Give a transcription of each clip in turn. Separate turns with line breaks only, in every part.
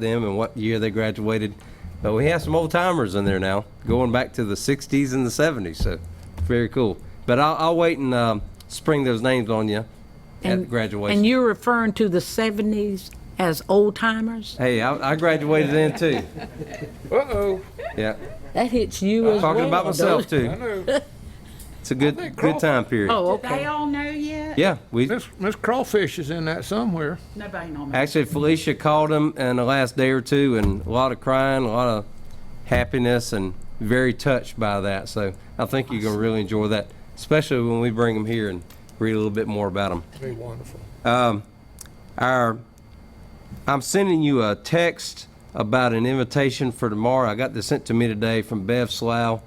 them and what year they graduated. But we have some old timers in there now, going back to the 60s and the 70s. So very cool. But I'll, I'll wait and um, spring those names on you
And-
at graduation.
And you're referring to the 70s as old timers?
hey, I, I graduated then too.
Uh-oh,
Yeah,
That hits you as well.
talking about myself
doesn't it?
I
too.
know.
It's a good
think
good
Crawford-
time period.
Oh,
They
okay.
all know yet?
Yeah, we
Miss, Miss Crawfish is in that somewhere.
Nobody know me.
Actually, Felicia called him in the last day or two, and a lot of crying, a lot of happiness, and very touched by that. So I think you're gonna really enjoy that, especially when we bring them here and read a little bit more about them.
Be wonderful.
Our, I'm sending you a text about an invitation for tomorrow. I got this sent to me today from Bev Slough,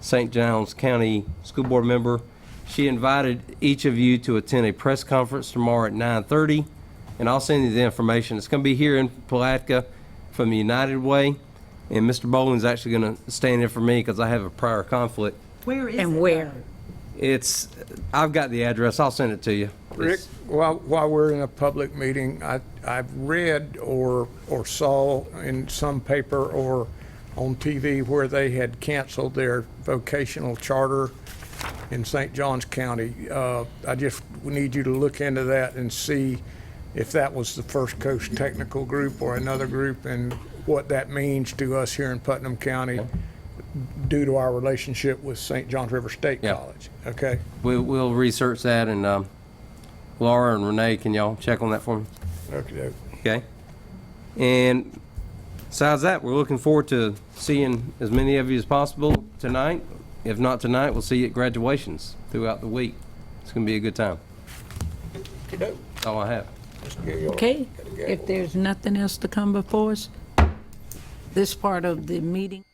St. John's County School Board member. She invited each of you to attend a press conference tomorrow at 9:30, and I'll send you the information. It's going to be here in Palatka from the United Way, and Mr. Bowling's actually going to stand in for me because I have a prior conflict.
Where is it?
And where?
It's, I've got the address. I'll send it to you.
Rick, while, while we're in a public meeting, I, I've read or, or saw in some paper or on TV where they had canceled their vocational charter in St. Johns County. Uh, I just need you to look into that and see if that was the First Coast Technical Group or another group and what that means to us here in Putnam County due to our relationship with St. Johns River State
Yeah.
College, okay?
We, we'll research that and, um, Laura and Renee, can y'all check on that for me?
Okay.
Okay? And besides that, we're looking forward to seeing as many of you as possible tonight. If not tonight, we'll see you at graduations throughout the week. It's gonna be a good time. That's all I have.
Okay, if there's nothing else to come before us, this part of the meeting.